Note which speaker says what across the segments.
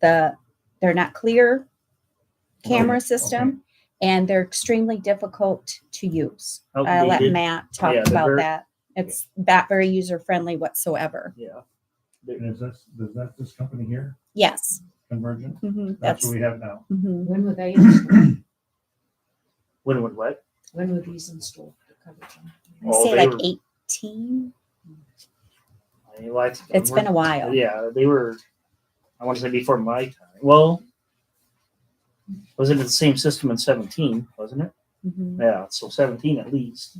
Speaker 1: the they're not clear
Speaker 2: Oh,
Speaker 1: camera system and they're extremely difficult to use. I'll let
Speaker 2: Outdated.
Speaker 1: Matt talk
Speaker 2: Yeah, they're
Speaker 1: about
Speaker 2: very-
Speaker 1: that. It's not very user friendly whatsoever.
Speaker 2: Yeah.
Speaker 3: And is this, is that this company here,
Speaker 1: Yes.
Speaker 3: Convergent?
Speaker 1: Mhm,
Speaker 3: That's
Speaker 1: that's
Speaker 3: what we have now.
Speaker 1: mhm.
Speaker 4: When were they,
Speaker 2: When would what?
Speaker 4: when were these installed? the coverage on?
Speaker 1: I
Speaker 2: Oh,
Speaker 1: say
Speaker 2: they
Speaker 1: like
Speaker 2: were-
Speaker 1: 18.
Speaker 2: I mean, like,
Speaker 1: It's been a while.
Speaker 2: Yeah, they were. I want to say before my time. Well, was it the same system in seventeen? Wasn't it?
Speaker 1: Mhm.
Speaker 2: Yeah, so seventeen at least.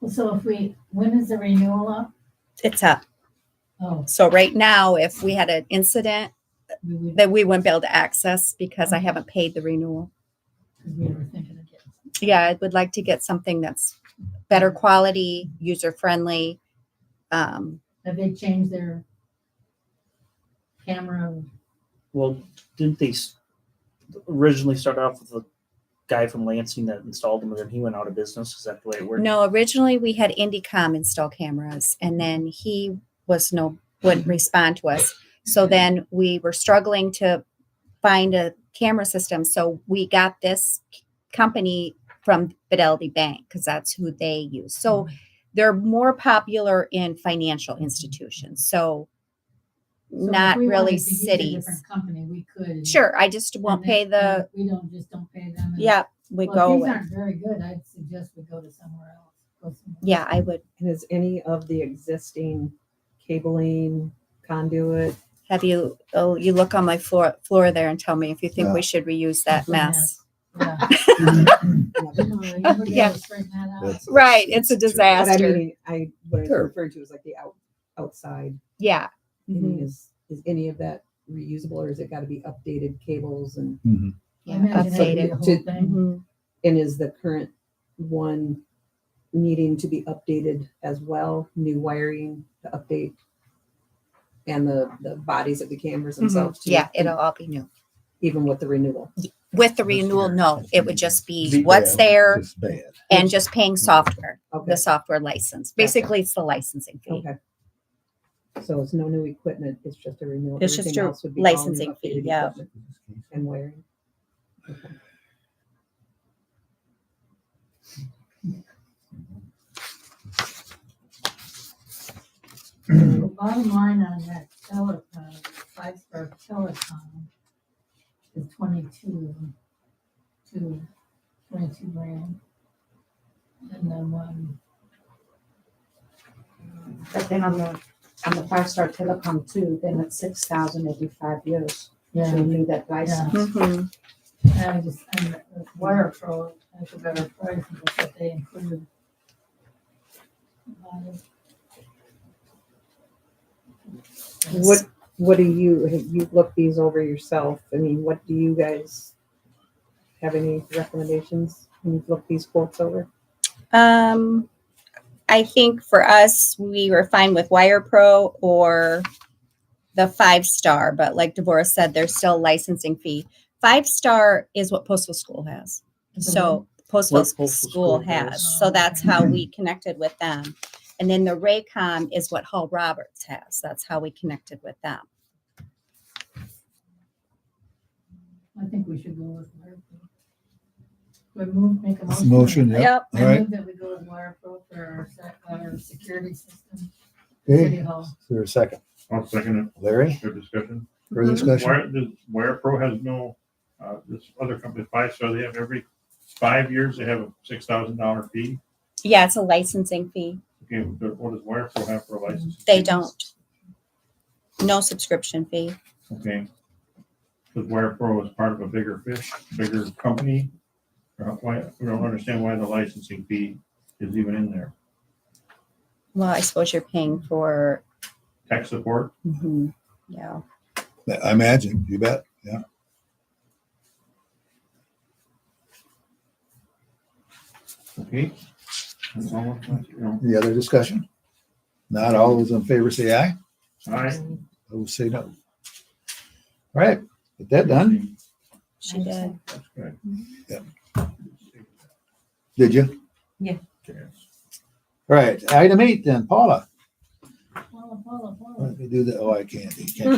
Speaker 5: Well, So if we, when is the renewal up?
Speaker 1: It's up.
Speaker 5: Oh,
Speaker 1: So right now, if we had an incident
Speaker 5: we would,
Speaker 1: that we wouldn't be able to access because I haven't paid the renewal.
Speaker 5: because we were thinking of getting.
Speaker 1: Yeah, I would like to get something that's better quality, user friendly. Um,
Speaker 5: Have they changed their camera?
Speaker 2: Well, didn't they s- originally start off with the guy from Lansing that installed them, and then he went out of business? Is that the way it worked?
Speaker 1: no, originally we had Indicom install cameras and then he was no, wouldn't respond to us. So then we were struggling to find a camera system. So we got this company from Fidelity Bank because that's who they use. So
Speaker 5: Mm-hmm.
Speaker 1: they're more popular in financial institutions. So,
Speaker 5: So if
Speaker 1: not
Speaker 5: we wanted
Speaker 1: really
Speaker 5: to use a
Speaker 1: cities.
Speaker 5: different Company, we could.
Speaker 1: Sure, I just
Speaker 5: and
Speaker 1: won't
Speaker 5: then-
Speaker 1: pay the.
Speaker 5: and We don't, just don't pay them. and-
Speaker 1: Yeah, we
Speaker 5: Well,
Speaker 1: go
Speaker 5: If these
Speaker 1: with.
Speaker 5: aren't very good, I'd suggest we go to somewhere else. Go somewhere
Speaker 1: Yeah, I would
Speaker 6: And is any of the existing cabling conduit?
Speaker 1: have you. Oh, you look on my floor floor there and tell me if you think we
Speaker 7: Yeah.
Speaker 1: should reuse that
Speaker 5: Yeah.
Speaker 1: mess.
Speaker 5: else.
Speaker 1: Yeah.
Speaker 5: Yeah. Straighten that out.
Speaker 7: That's-
Speaker 1: Right, it's a
Speaker 7: that's true.
Speaker 6: But I
Speaker 1: disaster.
Speaker 6: mean, I, what I
Speaker 7: Sure.
Speaker 6: referred to is like the out, outside,
Speaker 1: Yeah.
Speaker 6: I
Speaker 1: Mhm.
Speaker 6: mean, is, is any of that reusable or has it gotta be updated cables and,
Speaker 5: I imagine that would be
Speaker 1: Updated.
Speaker 5: the whole
Speaker 6: To-
Speaker 5: thing.
Speaker 1: Mhm.
Speaker 6: and is the current one needing to be updated as well, new wiring to update? And the, the bodies of the cameras themselves? too?
Speaker 1: Mm-hmm. Yeah, it'll all be new.
Speaker 6: Even with the renewal?
Speaker 1: With the
Speaker 7: This
Speaker 1: renewal,
Speaker 7: year.
Speaker 1: no, it would just be
Speaker 7: Be
Speaker 1: what's
Speaker 7: bad.
Speaker 1: there
Speaker 7: It's bad.
Speaker 1: and just paying software,
Speaker 6: Mm-hmm. Okay,
Speaker 1: the software license. Basically, it's the licensing fee.
Speaker 6: okay. So it's no new equipment, it's just a renewal?
Speaker 1: It's just
Speaker 6: everything
Speaker 1: a
Speaker 6: else would be all new
Speaker 1: licensing fee,
Speaker 6: updated
Speaker 1: yeah.
Speaker 6: equipment And wiring?
Speaker 5: The Bottom line on that telecom, five star telecom, is twenty-two, two, twenty-two grand. And then one,
Speaker 4: But then on the, on the five star telecom too, then it's six thousand every five years, to
Speaker 5: yeah,
Speaker 4: renew that license.
Speaker 1: Mhm.
Speaker 5: I just, and the wire pro, that's a better price than what they included. Uh,
Speaker 6: What, what do you, have you looked these over yourself? I mean, what do you guys have any recommendations when you've looked these quotes over?
Speaker 1: Um, I think for us, we were fine with Wire Pro or the five star, but like Deborah said, there's still a licensing fee. Five star is what Postal School has. So Postal,
Speaker 2: What Postal
Speaker 1: School,
Speaker 2: School
Speaker 1: has.
Speaker 5: has.
Speaker 1: So that's how we connected with them. And then the Raycom is what Hall Roberts has. That's how we connected with them.
Speaker 5: I think we should go with wire pro. We move, make a motion.
Speaker 7: Motion, yeah. All
Speaker 5: I
Speaker 7: right.
Speaker 5: move that we go with wire pro for our, sec- our security system, city
Speaker 7: Okay. Is
Speaker 5: hall.
Speaker 7: there a second?
Speaker 3: One second,
Speaker 7: Larry,
Speaker 3: your discussion.
Speaker 7: further discussion?
Speaker 3: Wire, this Wire Pro has no, uh, this other company, Five Star, they have every five years, they have a six thousand dollar fee.
Speaker 1: Yeah, it's a licensing fee.
Speaker 3: Okay, but what does Wire Pro have for a license?
Speaker 1: They don't. No subscription fee.
Speaker 3: Okay. Because Wire Pro is part of a bigger fish, bigger company. Or Why, we don't understand why the licensing fee is even in there.
Speaker 1: Well, I suppose you're paying for,
Speaker 3: Tech support,
Speaker 1: mhm, yeah.
Speaker 7: I imagine, you bet. Yeah.
Speaker 3: okay? That's all, you know,
Speaker 7: Any other discussion? Not all those in favor say aye.
Speaker 3: All right.
Speaker 7: Those say no. All right. Get that done.
Speaker 1: She did.
Speaker 3: That's good.
Speaker 7: Yeah. Did you?
Speaker 6: Yeah.
Speaker 3: Yes.
Speaker 7: All right. Item eight then, Paula.
Speaker 5: Well, Paula, Paula, Paula.
Speaker 7: Let me do the, oh, I can't, you can't.